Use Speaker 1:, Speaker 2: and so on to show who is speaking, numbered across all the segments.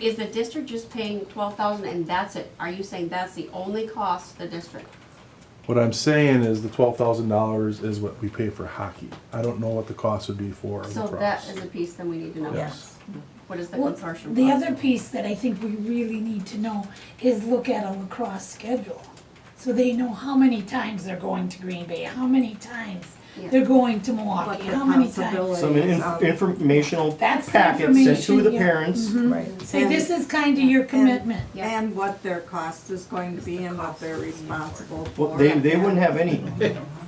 Speaker 1: Is the district just paying twelve thousand and that's it? Are you saying that's the only cost the district?
Speaker 2: What I'm saying is the twelve thousand dollars is what we pay for hockey. I don't know what the cost would be for
Speaker 1: So that
Speaker 2: lacrosse.
Speaker 1: is a piece that we need to know.
Speaker 2: Yes.
Speaker 1: What is the
Speaker 3: Well,
Speaker 1: consortium?
Speaker 3: The
Speaker 1: cost?
Speaker 3: other piece that I think we really need to know is look at a lacrosse schedule. So they know how many times they're going to Green Bay, how many times
Speaker 1: Yeah.
Speaker 3: they're going to Milwaukee, how many times.
Speaker 4: Some inf- informational
Speaker 3: That's the
Speaker 4: packets sent to the
Speaker 3: information, yeah. Mm-hmm.
Speaker 4: parents.
Speaker 5: Right.
Speaker 3: Say, this is kind of your commitment.
Speaker 1: Yeah.
Speaker 6: And what their cost is going to be and what they're responsible
Speaker 4: Well,
Speaker 6: for.
Speaker 4: they, they wouldn't have any,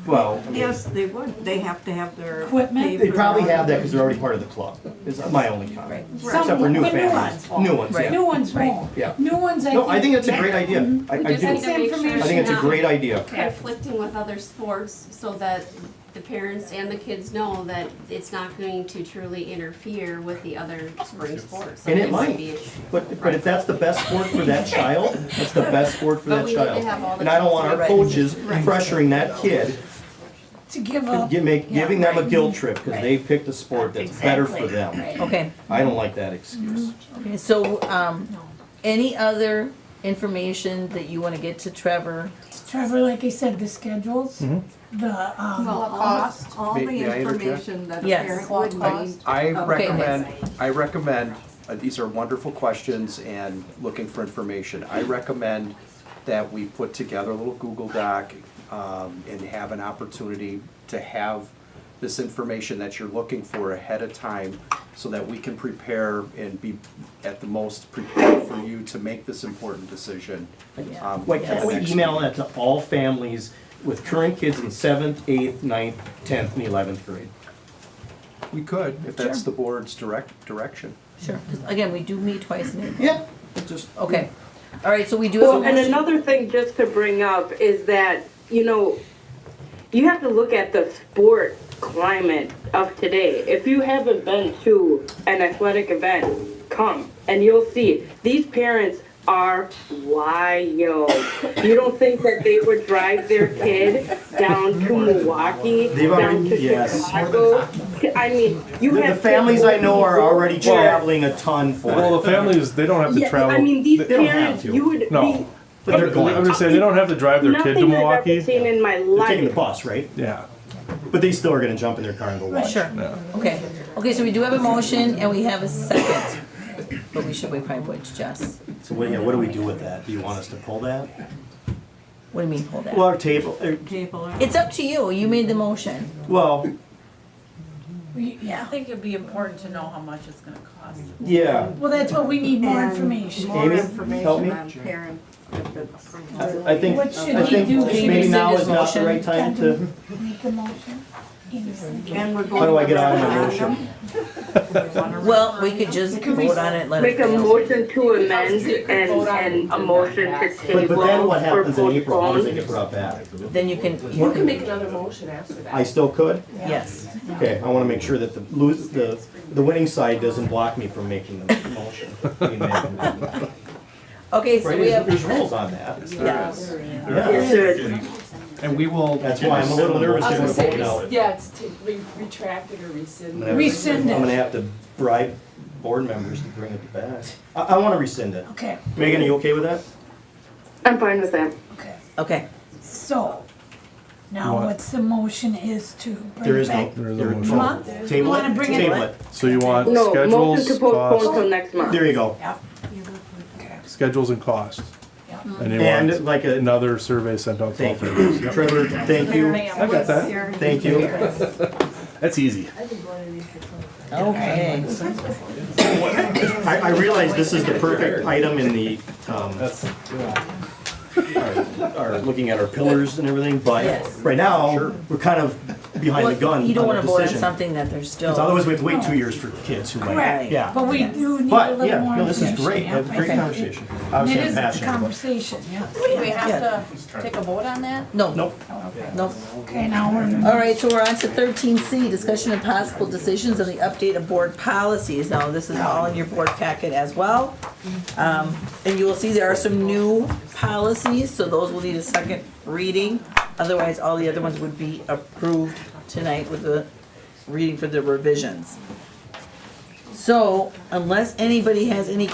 Speaker 4: well,
Speaker 6: Yes, they would, they have to have their.
Speaker 3: Equipment?
Speaker 6: paper
Speaker 4: they probably
Speaker 6: on
Speaker 4: have that
Speaker 6: it.
Speaker 4: because they're already part of the club, is my only comment.
Speaker 3: Some-
Speaker 4: Except for new
Speaker 3: but
Speaker 4: families,
Speaker 3: won't.
Speaker 4: new ones, yeah.
Speaker 3: New ones won't.
Speaker 4: Yeah.
Speaker 3: New ones, I think.
Speaker 4: No, I think that's a great idea. I, I
Speaker 1: just
Speaker 4: do.
Speaker 1: need to make sure
Speaker 4: I think it's a
Speaker 1: not-
Speaker 4: great idea.
Speaker 1: Conflicting with other sports so that the parents and the kids know that it's not going to truly interfere with the other spring sports. So
Speaker 4: And it
Speaker 1: this would
Speaker 4: might.
Speaker 1: be a-
Speaker 4: But, but if that's the best sport for that child, that's the best sport for
Speaker 1: But
Speaker 4: that
Speaker 1: we need to
Speaker 4: child.
Speaker 1: have all the
Speaker 4: And I don't want our
Speaker 1: right.
Speaker 4: coaches
Speaker 1: Right.
Speaker 4: pressuring that kid,
Speaker 3: To give up.
Speaker 4: gi- make-
Speaker 3: Yeah,
Speaker 4: giving them a
Speaker 3: right.
Speaker 4: guilt trip because
Speaker 3: Right.
Speaker 4: they picked a sport that's better for
Speaker 3: Exactly,
Speaker 4: them.
Speaker 3: right.
Speaker 5: Okay,
Speaker 4: I don't like that excuse.
Speaker 5: Okay, so, um, any other information that you wanna get to Trevor?
Speaker 3: Trevor, like I said, the schedules,
Speaker 4: Mm-hmm.
Speaker 3: the,
Speaker 1: Well,
Speaker 3: um,
Speaker 6: All,
Speaker 3: cost.
Speaker 6: all the
Speaker 7: May- may I interject?
Speaker 6: information that a
Speaker 5: Yes.
Speaker 6: parent would need.
Speaker 7: I
Speaker 6: Okay.
Speaker 7: recommend, I recommend, uh, these are wonderful questions and looking for information. I recommend that we put together a little Google Doc um, and have an opportunity to have this information that you're looking for ahead of time so that we can prepare and be at the most prepared for you to make this important decision. um,
Speaker 4: Why
Speaker 7: at
Speaker 4: can't
Speaker 7: the
Speaker 4: we
Speaker 7: next
Speaker 4: email
Speaker 7: meeting.
Speaker 4: that to all families with current kids in seventh, eighth, ninth, tenth, and eleventh grade?
Speaker 7: We could, if that's the board's direct, direction.
Speaker 5: Sure. 'Cause Again, we do meet twice in April.
Speaker 4: Yeah, just.
Speaker 5: Okay, all right, so we do have a
Speaker 8: Well, and
Speaker 5: motion.
Speaker 8: another thing just to bring up is that, you know, you have to look at the sport climate of today. If you haven't been to an athletic event, come and you'll see. These parents are wild. You don't think that they would drive their kid down to Milwaukee,
Speaker 4: They've already-
Speaker 8: down to
Speaker 4: yes.
Speaker 8: Chicago? I mean, you
Speaker 4: The
Speaker 8: have.
Speaker 4: families I know are already
Speaker 2: Well-
Speaker 4: traveling a ton for
Speaker 2: Well,
Speaker 4: it.
Speaker 2: the families, they don't have to
Speaker 8: Yeah,
Speaker 2: travel.
Speaker 8: I mean, these
Speaker 2: they don't have-
Speaker 8: parents,
Speaker 4: to.
Speaker 8: you would be.
Speaker 2: No.
Speaker 4: But they're going.
Speaker 2: I'm just saying, they don't have to drive their kid to
Speaker 8: Nothing I've ever
Speaker 2: Milwaukee.
Speaker 8: seen in my
Speaker 4: They're
Speaker 8: life.
Speaker 4: taking the bus, right?
Speaker 2: Yeah,
Speaker 4: But they still are gonna jump in their car and go watch.
Speaker 5: Sure,
Speaker 2: yeah.
Speaker 5: okay. Okay, so we do have a motion and we have a second. But we should, we probably would, Jess.
Speaker 4: So what, yeah, what do we do with that? Do you want us to pull that?
Speaker 5: What do you mean, hold
Speaker 4: Well,
Speaker 5: that?
Speaker 4: our table, uh,
Speaker 6: Table it.
Speaker 5: It's up to you, you made the motion.
Speaker 4: well,
Speaker 3: we- yeah.
Speaker 9: I think it'd be important to know how much it's gonna cost.
Speaker 4: yeah.
Speaker 3: Well, that's what we need more
Speaker 6: And
Speaker 3: information.
Speaker 6: More
Speaker 4: Amy,
Speaker 6: information
Speaker 4: help me?
Speaker 6: on parent. if it's
Speaker 4: I I think, I
Speaker 3: What should we
Speaker 4: think
Speaker 3: do? Should we
Speaker 4: maybe
Speaker 5: rescind
Speaker 4: now
Speaker 5: his
Speaker 4: is not the
Speaker 5: motion?
Speaker 4: right time to,
Speaker 3: Make a motion. Anderson.
Speaker 6: And we're going.
Speaker 4: how do I get out of my
Speaker 6: around
Speaker 4: motion?
Speaker 6: them.
Speaker 5: Well, we could just
Speaker 3: Can we-
Speaker 5: vote on it, let it
Speaker 8: Make a
Speaker 5: fail.
Speaker 8: motion to amend and, and a motion to
Speaker 4: But,
Speaker 8: table
Speaker 4: but then what
Speaker 8: or
Speaker 4: happens in April? How does it
Speaker 8: postpone.
Speaker 4: get brought back?
Speaker 5: Then you can,
Speaker 9: You
Speaker 5: you
Speaker 9: can
Speaker 5: can,
Speaker 9: make another motion after that.
Speaker 4: I still could?
Speaker 5: yes.
Speaker 4: Okay, I wanna make sure that the lose, the, the winning side doesn't block me from making the motion. Right,
Speaker 5: Okay, so we
Speaker 4: there's,
Speaker 5: have,
Speaker 4: there's rules on that.
Speaker 9: Yes.
Speaker 4: Yeah,
Speaker 7: And we will.
Speaker 4: that's why I'm a little nervous.
Speaker 9: I
Speaker 4: to
Speaker 9: was gonna
Speaker 4: vote now.
Speaker 9: say, yeah, it's t- re- retracted or
Speaker 4: I'm
Speaker 9: rescinded.
Speaker 4: gonna have to-
Speaker 3: Rescind it.
Speaker 4: I'm gonna have to bribe board members to bring it back. I, I wanna rescind it.
Speaker 3: Okay,
Speaker 4: Megan, are you okay with that?
Speaker 8: I'm fine with that.
Speaker 3: okay.
Speaker 5: okay,
Speaker 3: So, now
Speaker 2: What?
Speaker 3: what's the motion is to
Speaker 4: There
Speaker 3: bring
Speaker 4: is no,
Speaker 3: back
Speaker 2: There is
Speaker 4: there
Speaker 2: no
Speaker 4: is
Speaker 2: motion.
Speaker 4: no.
Speaker 3: Month? You
Speaker 4: Table
Speaker 3: wanna
Speaker 4: it,
Speaker 3: bring it
Speaker 4: table
Speaker 3: back?
Speaker 4: it.
Speaker 2: So you want
Speaker 8: No, motion to
Speaker 2: schedules,
Speaker 8: postpone till
Speaker 2: costs,
Speaker 8: next month.
Speaker 4: There you go.
Speaker 2: schedules and costs.
Speaker 3: Yeah.
Speaker 2: And you
Speaker 4: And
Speaker 2: want
Speaker 4: like a,
Speaker 2: another survey sent out to all
Speaker 4: thank
Speaker 2: families.
Speaker 4: you. Trevor, thank you,
Speaker 2: I got that.
Speaker 4: thank you.
Speaker 2: That's easy.
Speaker 5: okay.
Speaker 4: I, I realize this is the perfect item in the, um, our, our- looking at our pillars and everything, but
Speaker 5: Yes.
Speaker 4: right now, we're kind of behind the gun
Speaker 5: Well, You don't
Speaker 4: on
Speaker 5: wanna
Speaker 4: the
Speaker 5: vote on
Speaker 4: decision.
Speaker 5: something that there's still.
Speaker 4: Because otherwise we have to wait two years for kids who might,
Speaker 3: Correct,
Speaker 4: yeah.
Speaker 3: but we do need a
Speaker 4: But,
Speaker 3: little
Speaker 4: yeah,
Speaker 3: more information.
Speaker 4: no, this is great,
Speaker 3: yeah.
Speaker 4: that's a great
Speaker 3: Okay.
Speaker 4: conversation.
Speaker 3: It
Speaker 4: Obviously, I'm
Speaker 3: is a
Speaker 4: passionate, but-
Speaker 3: conversation, yeah.
Speaker 9: Do we have to take a vote on that?
Speaker 5: No.
Speaker 4: Nope.
Speaker 5: No.
Speaker 3: Okay, now we're,
Speaker 5: All right, so we're on to thirteen C, discussion of possible decisions on the update of board policies. Now, this is all in your board packet as well. Um, and you will see there are some new policies, so those will need a second reading. Otherwise, all the other ones would be approved tonight with the reading for the revisions. So unless anybody has any